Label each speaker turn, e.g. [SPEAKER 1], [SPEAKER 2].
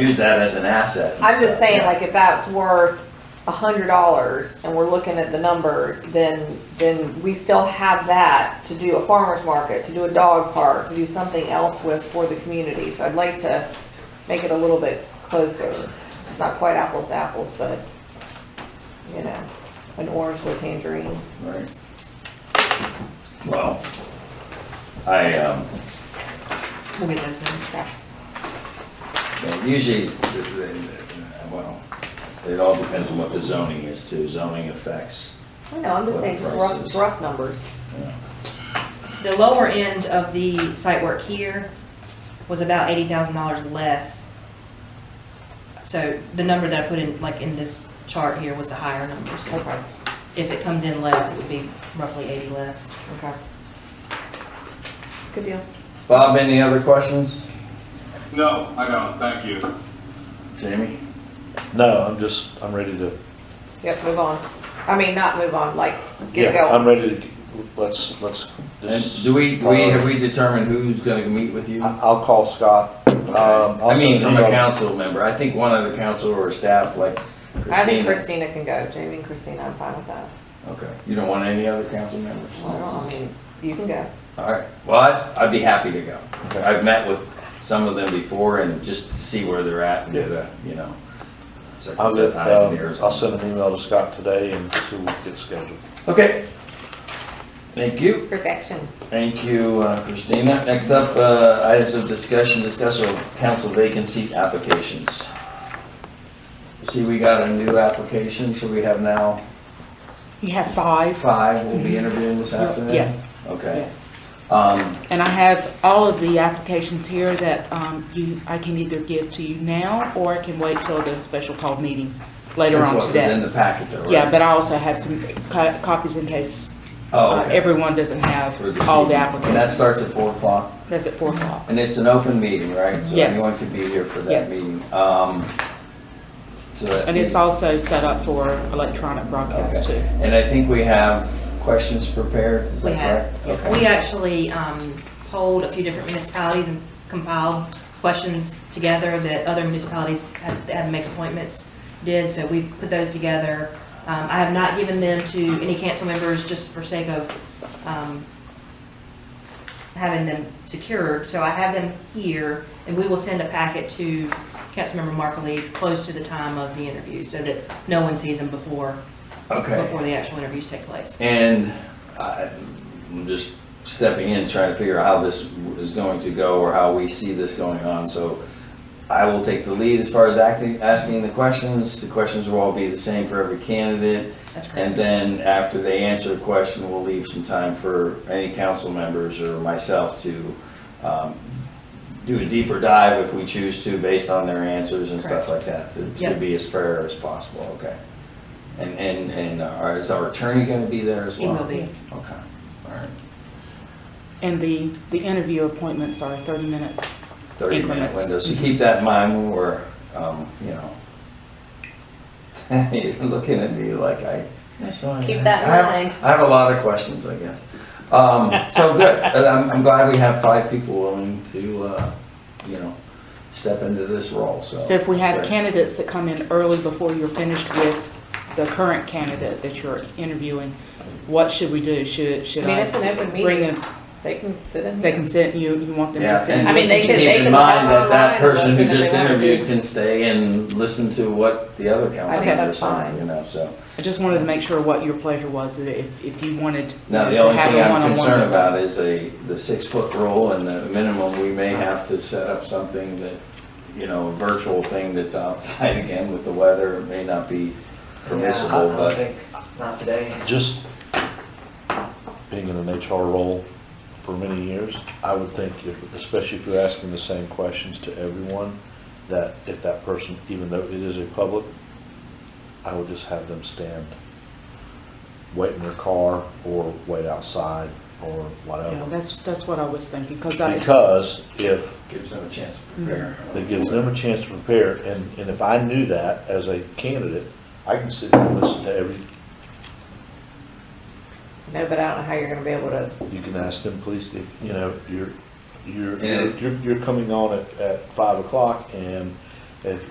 [SPEAKER 1] use that as an asset. and
[SPEAKER 2] I'm just
[SPEAKER 1] stuff,
[SPEAKER 2] saying,
[SPEAKER 1] yeah.
[SPEAKER 2] like, if that's worth a hundred dollars and we're looking at the numbers, then, then we still have that to do a farmer's market, to do a dog park, to do something else with for the community. So I'd like to make it a little bit closer. It's not quite apples to apples, but, you know, an orange to a tangerine.
[SPEAKER 1] Right. Well, I, um,
[SPEAKER 2] We'll get those in the trash.
[SPEAKER 1] Well, Usually, the- the- the- well, it all depends on what the zoning is too, zoning affects.
[SPEAKER 2] I know, I'm just saying, just rough,
[SPEAKER 1] Prices.
[SPEAKER 2] rough numbers.
[SPEAKER 1] you know.
[SPEAKER 3] The lower end of the site work here was about eighty thousand dollars less. So the number that I put in, like in this chart here was the higher number, so
[SPEAKER 2] Okay,
[SPEAKER 3] if it comes in less, it would be roughly eighty less.
[SPEAKER 2] okay. Good deal.
[SPEAKER 1] Bob, any other questions?
[SPEAKER 4] No, I don't, thank you.
[SPEAKER 1] Jamie?
[SPEAKER 5] No, I'm just, I'm ready to,
[SPEAKER 2] Yep, move on. I mean, not move on, like, get
[SPEAKER 5] yeah, I'm
[SPEAKER 2] going.
[SPEAKER 5] ready to, let's, let's.
[SPEAKER 1] And
[SPEAKER 5] just-
[SPEAKER 1] do we, we, have we determined who's gonna meet with you?
[SPEAKER 5] I- I'll call Scott. Um, I'll
[SPEAKER 1] I mean,
[SPEAKER 5] send
[SPEAKER 1] from a
[SPEAKER 5] him
[SPEAKER 1] council member, I think one of the council or staff, like
[SPEAKER 2] I think
[SPEAKER 1] Christina.
[SPEAKER 2] Christina can go. Jamie and Christina, I'm fine with that.
[SPEAKER 1] Okay, you don't want any other council members?
[SPEAKER 2] Well, I don't, I mean, you can go.
[SPEAKER 1] All right, well, I'd, I'd be happy to go.
[SPEAKER 5] Okay.
[SPEAKER 1] I've met with some of them before and just to see where they're at and
[SPEAKER 5] Yeah.
[SPEAKER 1] get a, you know. it's like
[SPEAKER 5] I'll get,
[SPEAKER 1] eyes and
[SPEAKER 5] um,
[SPEAKER 1] ears
[SPEAKER 5] I'll
[SPEAKER 1] on.
[SPEAKER 5] send an email to Scott today and see what gets scheduled.
[SPEAKER 1] Okay. Thank you.
[SPEAKER 2] Perfection.
[SPEAKER 1] Thank you, uh, Christina. Next up, uh, items of discussion, discuss our council vacancy applications. See, we got a new application, so we have now
[SPEAKER 6] You have five?
[SPEAKER 1] five we'll be interviewing this afternoon?
[SPEAKER 6] Yes,
[SPEAKER 1] Okay.
[SPEAKER 6] yes.
[SPEAKER 1] Um,
[SPEAKER 6] And I have all of the applications here that um, you, I can either give to you now or I can wait till the special call meeting later
[SPEAKER 1] That's
[SPEAKER 6] on
[SPEAKER 1] what was in
[SPEAKER 6] today.
[SPEAKER 1] the packet though, right?
[SPEAKER 6] Yeah, but I also have some co- copies in case
[SPEAKER 1] Oh,
[SPEAKER 6] uh,
[SPEAKER 1] okay.
[SPEAKER 6] everyone doesn't have
[SPEAKER 1] For this
[SPEAKER 6] all the
[SPEAKER 1] evening. And that
[SPEAKER 6] applications.
[SPEAKER 1] starts at four o'clock,
[SPEAKER 6] That's at four o'clock.
[SPEAKER 1] and it's an open meeting, right? So
[SPEAKER 6] Yes.
[SPEAKER 1] anyone can be here for that
[SPEAKER 6] Yes.
[SPEAKER 1] meeting. Um, so that
[SPEAKER 6] And it's
[SPEAKER 1] meeting-
[SPEAKER 6] also set up for electronic broadcast
[SPEAKER 1] Okay.
[SPEAKER 6] too.
[SPEAKER 1] And I think we have questions prepared, is
[SPEAKER 3] We
[SPEAKER 1] that
[SPEAKER 3] had,
[SPEAKER 1] correct?
[SPEAKER 6] yes.
[SPEAKER 1] Okay.
[SPEAKER 3] we actually um, polled a few different municipalities and compiled questions together that other municipalities had that had to make appointments did, so we've put those together. Um, I have not given them to any council members just for sake of um, having them secured, so I have them here, and we will send a packet to Councilmember Markleese close to the time of the interview, so that no one sees them before,
[SPEAKER 1] Okay.
[SPEAKER 3] before the actual interviews take place.
[SPEAKER 1] And I- I'm just stepping in, trying to figure out how this is going to go or how we see this going on. So I will take the lead as far as acting, asking the questions. The questions will all be the same for every candidate.
[SPEAKER 3] That's correct.
[SPEAKER 1] And then after they answer a question, we'll leave some time for any council members or myself to um, do a deeper dive if we choose to, based on their answers and stuff like that, to- to
[SPEAKER 3] Yep.
[SPEAKER 1] be as fair as possible, okay? And, and, and our- is our attorney going to be there as
[SPEAKER 3] He
[SPEAKER 1] well?
[SPEAKER 3] will be.
[SPEAKER 1] Okay, all right.
[SPEAKER 6] And the, the interview appointments are thirty minutes.
[SPEAKER 1] 30-minute
[SPEAKER 6] Increments.
[SPEAKER 1] window, so keep that in mind when we're, um, you know, you're looking at me like I.
[SPEAKER 2] Keep that in
[SPEAKER 1] I have-
[SPEAKER 2] mind.
[SPEAKER 1] I have a lot of questions, I guess. Um, so good, And I'm, I'm glad we have five people willing to, uh, you know, step into this role, so.
[SPEAKER 6] So if we have
[SPEAKER 1] Great.
[SPEAKER 6] candidates that come in early before you're finished with the current candidate that you're interviewing, what should we do? Should, should
[SPEAKER 2] I
[SPEAKER 6] I?
[SPEAKER 2] mean, it's an open
[SPEAKER 6] Bring
[SPEAKER 2] meeting.
[SPEAKER 6] them,
[SPEAKER 2] They can sit in.
[SPEAKER 6] they can sit, you, you want them to
[SPEAKER 1] Yeah,
[SPEAKER 6] sit?
[SPEAKER 1] and
[SPEAKER 6] and
[SPEAKER 2] I mean, they
[SPEAKER 6] listen
[SPEAKER 2] could-
[SPEAKER 6] to
[SPEAKER 1] keep
[SPEAKER 6] you?
[SPEAKER 2] they
[SPEAKER 1] in
[SPEAKER 2] could
[SPEAKER 1] mind that
[SPEAKER 2] log
[SPEAKER 1] that
[SPEAKER 2] online and
[SPEAKER 1] person who
[SPEAKER 2] listen if
[SPEAKER 1] just
[SPEAKER 2] they wanted
[SPEAKER 1] interviewed
[SPEAKER 2] to.
[SPEAKER 1] can stay and listen to what the other council
[SPEAKER 2] think
[SPEAKER 1] members
[SPEAKER 2] that's
[SPEAKER 1] are,
[SPEAKER 2] fine.
[SPEAKER 1] you know, so.
[SPEAKER 6] I just wanted to make sure what your pleasure was, that if, if you wanted to
[SPEAKER 1] Now, the only
[SPEAKER 6] have
[SPEAKER 1] thing
[SPEAKER 6] a
[SPEAKER 1] I'm
[SPEAKER 6] one-on-one.
[SPEAKER 1] concerned about is a, the six-foot rule and the minimum, we may have to set up something that, you know, a virtual thing that's outside again with the weather, it may not be permissible,
[SPEAKER 7] Yeah, I- I
[SPEAKER 1] but.
[SPEAKER 7] think Not today.
[SPEAKER 5] Just being in an HR role for many years, I would think, if- especially if you're asking the same questions to everyone, that if that person, even though it is a public, I would just have them stand, wait in their car or wait outside or
[SPEAKER 6] Yeah,
[SPEAKER 5] whatever.
[SPEAKER 6] that's, that's what I was thinking, because I,
[SPEAKER 5] Because if
[SPEAKER 1] Gives them a chance to
[SPEAKER 2] Mm-hmm.
[SPEAKER 1] prepare.
[SPEAKER 5] that gives them a chance to prepare, and, and if I knew that as a candidate, I can sit and listen to every,
[SPEAKER 2] No, but I don't know how you're gonna be able to,
[SPEAKER 5] you can ask them, please, if, you know, you're, you're,
[SPEAKER 1] Yeah.
[SPEAKER 5] you're, you're coming on at, at five o'clock, and If